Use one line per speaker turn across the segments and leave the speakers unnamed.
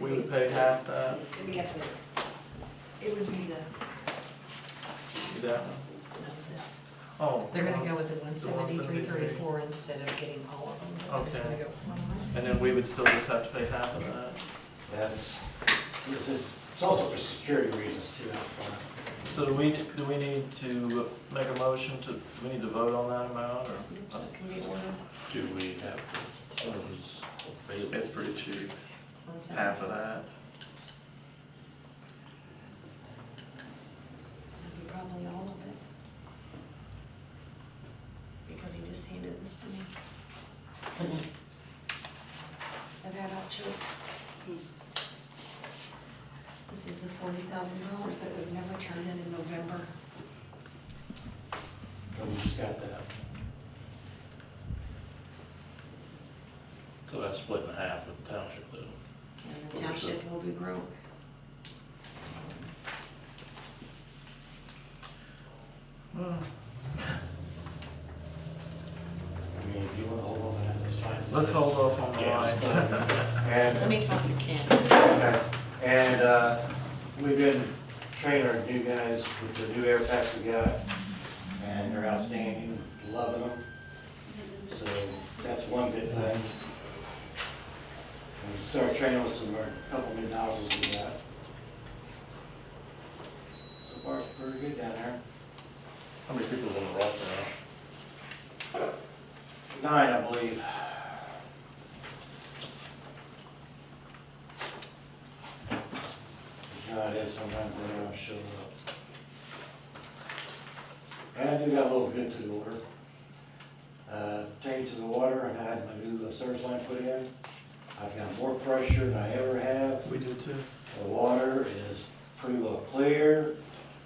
we would pay half that,
Let me get the, it would be the,
do that one.
no, this.
Oh.
They're gonna go with the one
The one
seventy-three,
seventy-three.
thirty-four instead of getting all of them. They're just gonna
Okay.
go one line.
And then we would still just have to pay half of that.
That's, this is, it's also for security reasons too, out front.
So do we, do we need to make a motion to, do we need to vote on that amount, or?
Can we order
Do we have funds available?
It's pretty cheap,
one seventy?
half of that.
That'd be probably all of it. Because he just handed this to me. I've had out too. This is the forty thousand dollars that was never turned in in November.
But we just got that.
So that's split in half with township though.
And the township will be broke.
Well,
I mean, if you wanna hold on to that, that's fine.
Let's hold off on the
Yeah,
line.
it's fine. And
Let me talk to Ken.
Okay, and, uh, we've been training our new guys with the new air packs we got, and they're outstanding, loving them. So that's one good thing. And we started training with some, a couple new nozzles we got. So far, it's pretty good down there.
How many people live in Rockland now?
Nine, I believe. You know how it is sometimes they don't show up. And I do got a little bit to the order. Uh, Tank to the water, and I had my new service line put in. I've got more pressure than I ever have.
We do too.
The water is pretty well clear,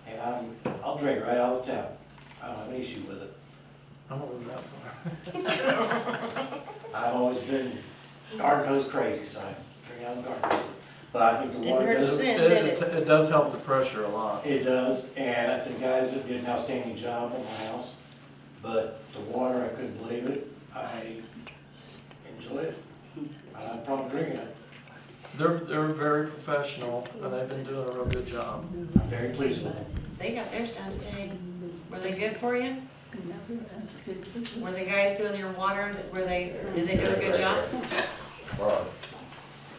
and I'm, I'll drink right out of the tap. I don't have any issue with it.
I'm over that far.
I've always been garden hose crazy, so I drink out of the garden hose. But I think the
Didn't
water
hurt to
does,
sniff.
it
Then, then
It, it does help the pressure a lot.
does, and I think guys did an outstanding job on my house. But the water, I couldn't believe it. I enjoy it. I don't have a problem drinking it.
They're, they're very professional, and they've been doing a real good job.
I'm very pleased with it.
They got theirs done today. Were they good for you? Were the guys doing your water, were they, did they do a good job?
Right.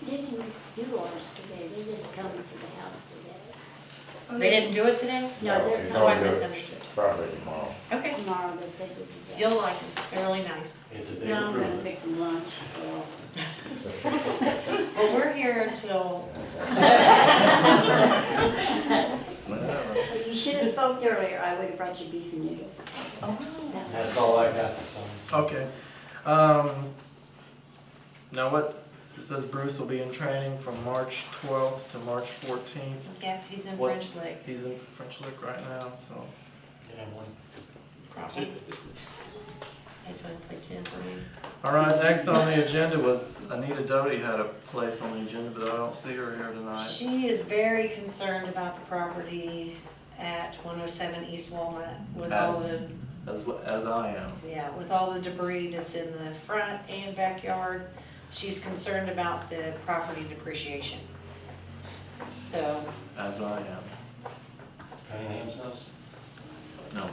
They didn't do ours today, they just come to the house today.
They didn't do it today?
No, they're
Oh, I
coming
misunderstood.
Probably tomorrow.
Okay,
tomorrow, they said it today.
you'll like them, they're really nice.
It's a big
Now I'm gonna
improvement.
make some lunch.
Well, we're here until,
Whatever.
You should have spoke earlier, I would have brought you beef and noodles.
Oh,
That's all I got this time.
Okay. Um, now what, it says Bruce will be in training from March twelfth to March fourteenth.
yeah, he's in French
What's-
Lake.
He's in French Lick right now, so.
Get him one.
I just want to play ten for me.
All right, next on the agenda was Anita Doty had a place on the agenda, but I don't see her here tonight.
She is very concerned about the property at one oh seven East Walnut with all
As-
the,
As, wh- as I am.
yeah, with all the debris that's in the front and backyard. She's concerned about the property depreciation. So,
As I am.
Cunningham's house?
No,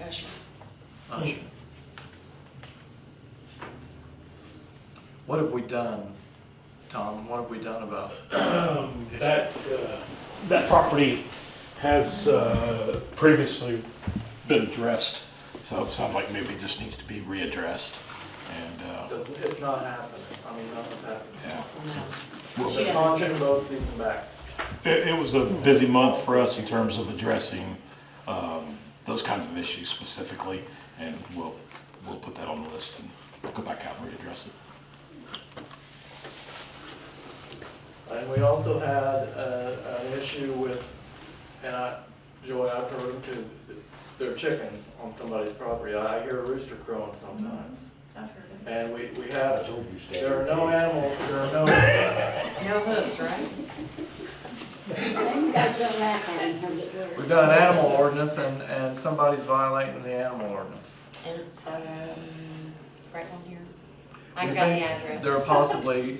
that's your Hmm.
not sure. What have we done, Tom? What have we done about it?
Um, That, uh, that property has uh, previously been addressed, so it sounds like maybe it just needs to be readdressed. And, uh,
It's, it's not happening. I mean, nothing's happening.
yeah.
She
The
doesn't-
contract vote's even back.
It, it was a busy month for us in terms of addressing um, those kinds of issues specifically, and we'll, we'll put that on the list and go back out and readdress it.
And we also had uh, an issue with, and I, Joy, I've heard them too, there are chickens on somebody's property. I hear a rooster crowing sometimes. I've heard it. And we, we
I
have,
told you, Stan.
there are no animals, there are no,
No hooves, right?
You guys don't laugh at them, they'll get worse.
we've got an animal ordinance and, and somebody's violating the animal ordinance.
And it's, um, right on here.
We
I've got the
think
address.
There are possibly